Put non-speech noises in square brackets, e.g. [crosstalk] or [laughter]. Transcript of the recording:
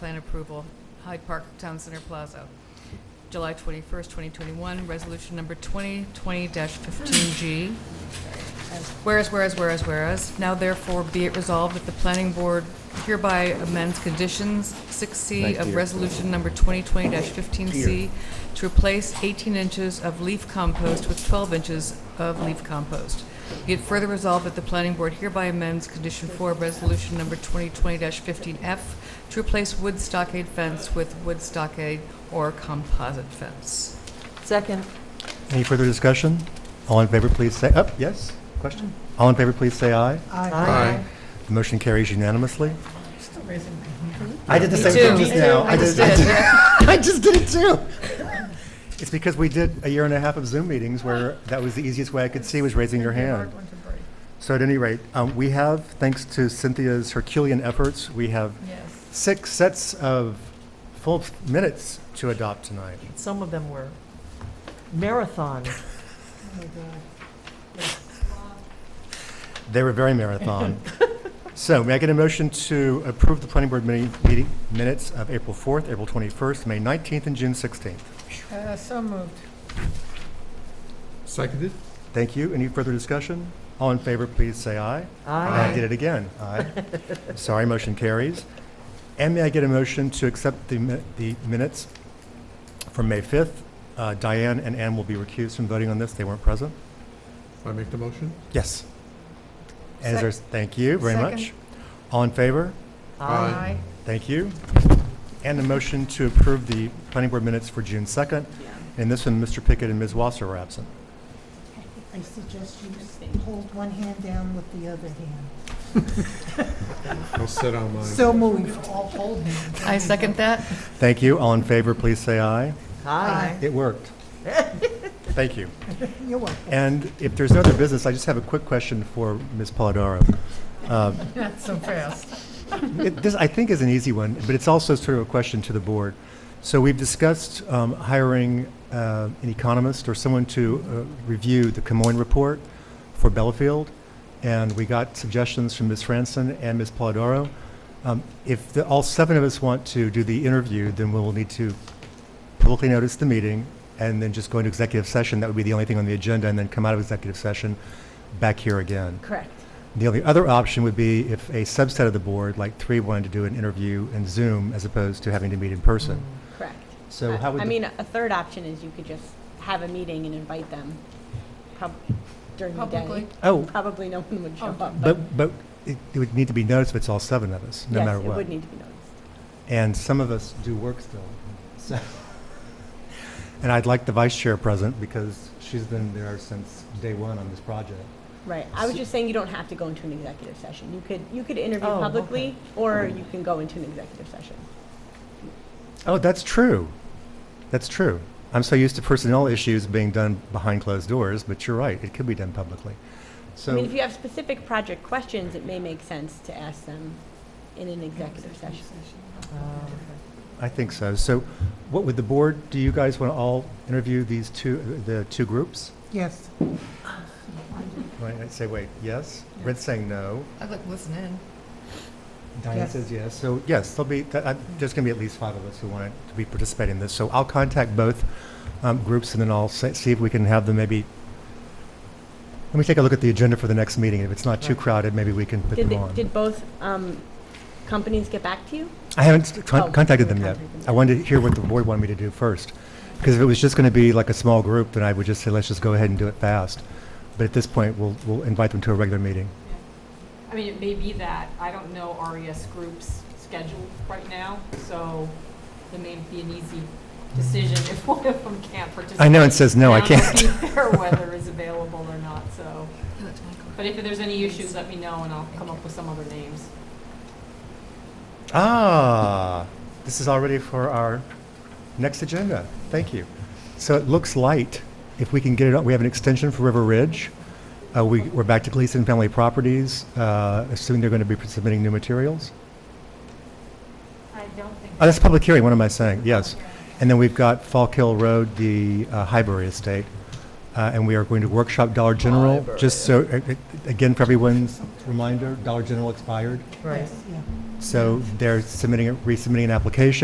plan approval, Hyde Park Town Center Plaza. July 21st, 2021, resolution number 2020-15G. Whereas, whereas, whereas, whereas, now therefore be it resolved that the planning board hereby amends conditions 6C of resolution number 2020-15C to replace 18 inches of leaf compost with 12 inches of leaf compost. Be it further resolved that the planning board hereby amends condition 4 of resolution number 2020-15F to replace wood stockade fence with wood stockade or composite fence. Second. Any further discussion? All in favor, please say, up, yes? Question? All in favor, please say aye. Aye. The motion carries unanimously. Still raising my hand. I did the Me same too. thing just Me too. now. I just I did. [laughs] I just did it too. It's because we did a year and a half of Zoom meetings where that was the easiest way I could see was raising your hand. Hard one to break. So at any rate, um, we have, thanks to Cynthia's Herculean efforts, we have Yes. six sets of full minutes to adopt tonight. Some of them were marathon. Oh, They were very marathon. So may I get a motion to approve the planning board mini- meeting minutes of April 4th, April 21st, May 19th, and June 16th? Uh, So moved. Seconded? Thank you. Any further discussion? All in favor, please say aye. I did it again. Aye. Sorry, motion carries. And may I get a motion to accept the mi- the minutes from May 5th? Uh, Diane and Ann will be recused from voting on this. They weren't present. I make the motion? Yes. And is there- thank you very Second. much. All in favor? Aye. Aye. Thank you. And a motion to approve the planning board minutes for June 2nd. And this one, Mr. Pickett and Ms. Wasser are absent. I suggest you hold one hand down with the other hand. I'll sit on mine. So moved. All hold hands. I second that. Thank you. All in favor, please say aye. Aye. It worked. Thank you. You're welcome. And if there's no other business, I just have a quick question for Ms. Polidoro. Uh, Not so fast. it- This, I think, is an easy one, but it's also sort of a question to the board. So we've discussed um, hiring uh, an economist or someone to uh, review the Camoin report for Bellafield, and we got suggestions from Ms. Franson and Ms. Polidoro. Um, If the- all seven of us want to do the interview, then we'll need to publicly notice the meeting and then just go into executive session. That would be the only thing on the agenda, and then come out of executive session back here again. Correct. The only other option would be if a subset of the board, like three, wanted to do an interview in Zoom as opposed to having to meet in person. Correct. So I- how would I the- mean, a third option is you could just have a meeting and invite them pub- during the Publicly. day. Oh, Probably no one would show Oh, up, but but, but it it would need to be noticed if it's all seven of us, no matter yes, it what. would need to be noticed. And some of us do work still, so. [laughs] And I'd like the vice chair present because she's been there since day one on this project. Right. I was just saying you don't have to go into an executive session. You could, you could interview Oh, publicly, or you can go into an executive session. Oh, that's true. That's true. I'm so used to personnel issues being done behind closed doors, but you're right, it could be done publicly. I So. mean, if you have specific project questions, it may make sense to ask them in an executive session. Mm, uh, I think so. So what would the board, do you guys want to all interview these two, the two groups? Yes. Right, I'd say, wait, yes? Red's saying no. I'd like to listen in. Diane Yes. says yes. So yes, there'll be, that- I- there's going to be at least five of us who want to be participating in this. So I'll contact both um, groups and then I'll se- see if we can have them maybe, let me take a look at the agenda for the next meeting. If it's not too Right. crowded, maybe we can put Did, them they- on. did both um, companies get back to you? I haven't Oh, con- contacted you them yet. contacted them. I wanted to hear what the board wanted me to do first. Because if it was just going to be like a small group, then I would just say, let's just go ahead and do it fast. But at this point, we'll, we'll invite them to a regular meeting. I mean, it may be that, I don't know RES group's schedule right now, so it may be an easy decision if [laughs] one of them can't participate. I know it says no, I And can't. don't know [laughs] if their weather is available or not, so. But if there's any issues, let me know and I'll come up with some other names. Ah, this is already for our next agenda. Thank you. So it looks light. If we can get it up, we have an extension for River Ridge. Uh, we, we're back to Gleason Family Properties, uh, assuming they're going to be submitting new materials. I don't think. Oh, that's public hearing, what am I saying? Yes. And then we've got Falk Hill Road, the uh, Highbury Estate, uh, and we are going to workshop Dollar General, just so, a- a- again, for everyone's reminder, Dollar General expired, Right. Yeah. So they're submitting, a- resubmitting an application.